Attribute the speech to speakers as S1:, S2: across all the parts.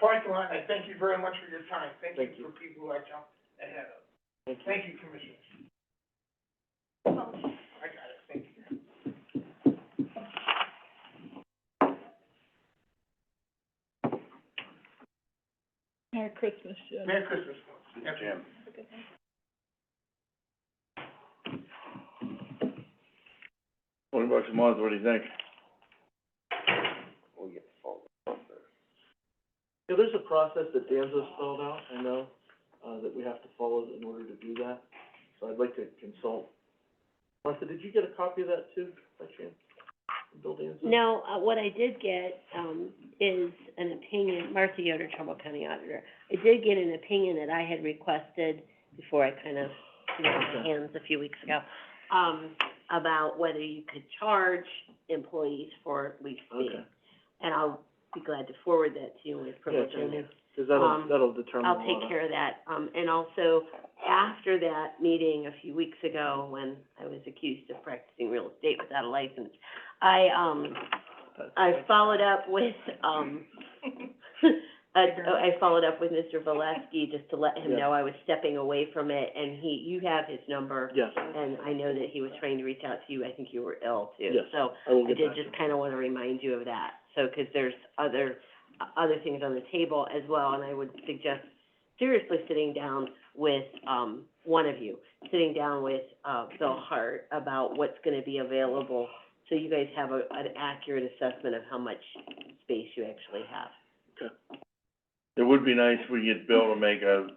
S1: parking lot, and I thank you very much for your time. Thank
S2: Thank
S1: you
S2: you.
S1: for people who I jumped ahead of.
S2: Thank you.
S1: Thank you, Commissioners. I got it, thank you.
S3: Merry Christmas, Jim.
S1: Merry Christmas, folks.
S2: Jim. Twenty bucks a month, what do you think? We'll get the phone.
S4: Yeah, there's a process that Danza spelled out, I know, uh, that we have to follow in order to do that, so I'd like to consult. Martha, did you get a copy of that too, by chance? from Bill Danza?
S5: No, uh, what I did get, um, is an opinion, Martha Yoder, Trumbull County Auditor. I did get an opinion that I had requested before I kind of threw up my
S4: Okay.
S5: hands a few weeks ago, um, about whether you could charge employees for leaf
S4: Okay,
S5: speeding. And I'll be glad to forward that to you with
S4: yeah,
S5: privilege on
S4: can
S5: that.
S4: you, cause that'll,
S5: Um,
S4: that'll determine a
S5: I'll
S4: lot
S5: take
S4: of-
S5: care of that. Um, and also, after that meeting a few weeks ago, when I was accused of practicing real estate without a license, I, um,
S4: That's-
S5: I followed up with, um, I, I followed up with Mr. Valesky just to let him
S4: Yeah.
S5: know I was stepping away from it, and he, you have his number.
S4: Yes,
S5: And I know that he was trying to reach out to you. I think you were ill too.
S4: Yes.
S5: So,
S4: I will
S5: I
S4: get
S5: did
S4: back to you.
S5: just kinda wanna remind you of that, so, 'cause there's other, uh, other things on the table as well, and I would suggest seriously sitting down with, um, one of you, sitting down with, uh, Bill Hart about what's gonna be available, so you guys have a, an accurate assessment of how much space you actually have.
S2: It would be nice if we could get Bill to make a,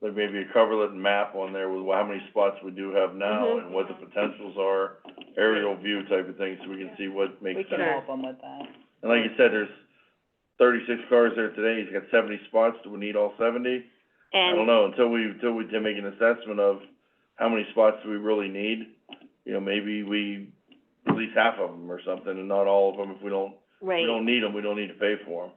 S2: like maybe a coverlet map on there with how many spots we do have now
S5: Mhm.
S2: and what the potentials are, aerial view type of thing, so we can see what
S3: We
S2: makes
S3: can
S2: sense.
S5: Sure.
S3: help them with that.
S2: And like you said, there's thirty-six cars there today, he's got seventy spots, do we need all seventy? I don't
S5: And,
S2: know, until we, until we can make an assessment of how many spots do we really need, you know, maybe we release half of them or something, and not all of them, if we don't,
S5: right.
S2: we don't need them, we don't need to pay for them.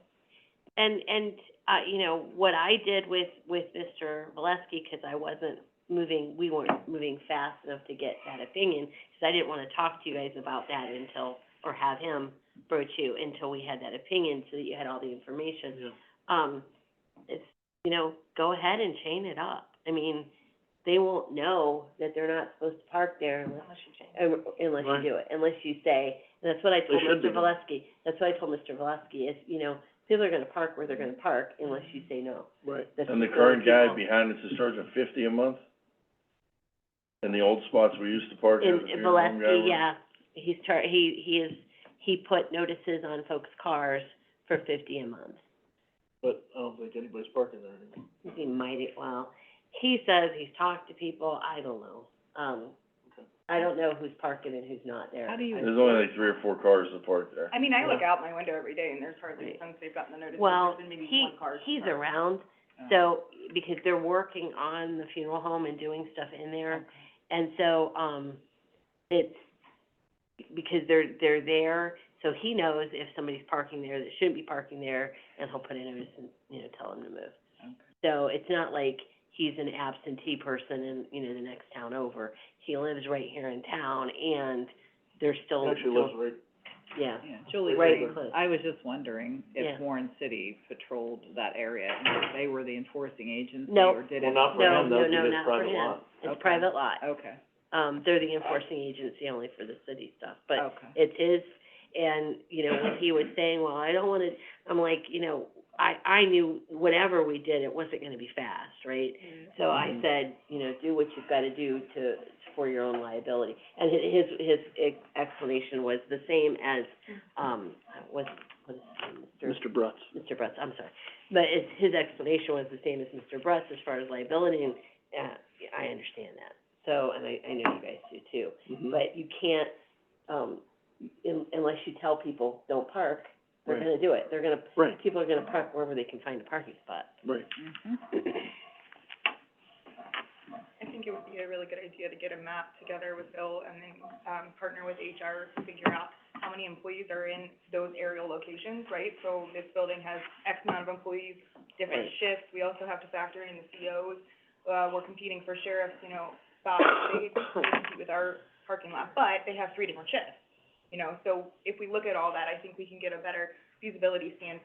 S5: And, and, uh, you know, what I did with, with Mr. Valesky, 'cause I wasn't moving, we weren't moving fast enough to get that opinion, 'cause I didn't wanna talk to you guys about that until, or have him broach you until we had that opinion, so that you had all the information.
S4: Yeah.
S5: Um, it's, you know, go ahead and chain it up. I mean, they won't know that they're not supposed to park there unless um, unless
S4: Right.
S5: you do it, unless you say, and that's what I told
S4: should
S5: Mr.
S4: do
S5: Valesky, that's what I told Mr. Valesky, is, you know, people are gonna park where they're gonna park unless you say no.
S4: Right,
S5: That's
S2: And the
S5: just
S2: current guy
S5: people-
S2: behind us is charging fifty a month? In the old spots we used to park at,
S5: In,
S2: the
S5: in
S2: funeral home guy
S5: Valesky,
S2: was-
S5: yeah, he's char- he, he is, he put notices on folks' cars for fifty a month.
S4: but I don't think anybody's parking there anymore.
S5: He might, it- well, he says he's talked to people, I don't know, um,
S4: Okay.
S5: I don't know who's parking and who's not there.
S3: How do you-
S2: There's only like three or four cars that park there.
S6: I mean, I look
S4: Yeah.
S6: out my window every day and there's hardly,
S5: Right.
S6: since they've gotten the notice,
S5: Well,
S6: there's been maybe
S5: he,
S6: one car. Oh.
S5: he's around, so, because they're working on the funeral home and doing stuff in there. And so, um, it's, because they're, they're there, so he knows if somebody's parking there that shouldn't be parking there, and he'll put a notice and, you know, tell them to move. So it's not like he's an absentee person in, you know, the next town over. He lives right here in town, and they're
S4: He
S5: still,
S4: Actually lives right,
S5: yeah.
S3: Yeah, Julie,
S4: Right.
S3: was- I was just wondering
S5: Yeah.
S3: if Warren City patrolled that area, and if they were the enforcing agency,
S5: No.
S3: or did it?
S4: well, not for
S5: No,
S4: him, that
S5: no,
S4: would be
S5: no,
S4: his
S5: not for
S4: private lot.
S5: him. It's
S3: Okay.
S5: private lot.
S3: Okay,
S5: Um, they're the enforcing agency only for the city stuff, but
S3: okay.
S5: it's his, and, you know, when he was saying, well, I don't wanna, I'm like, you know, I, I knew whatever we did, it wasn't gonna be fast, right? So I said, you know, do what you've gotta do to, for your own liability. And hi- his, his ex- explanation was the same as, um, was, was, Mr.
S4: Mr. Brutz.
S5: Mr. Brutz, I'm sorry. But it's, his explanation was the same as Mr. Brutz as far as liability, and, uh, I understand that. So, and I, I know you guys do too.
S4: Mhm.
S5: But you can't, um, un- unless you tell people, don't park, they're
S4: Right.
S5: gonna do it. They're gonna,
S4: Right,
S5: people are gonna park wherever they can find a parking spot.
S4: right,
S3: Mhm.
S6: I think it would be a really good idea to get a map together with Bill and then, um, partner with HR to figure out how many employees are in those aerial locations, right? So this building has X amount of employees, different
S5: Right.
S6: shifts, we also have to factor in the COs. Uh, we're competing for sheriffs, you know, spots, they, they compete with our parking lot, but they have three different shifts. You know, so if we look at all that, I think we can get a better feasibility stand,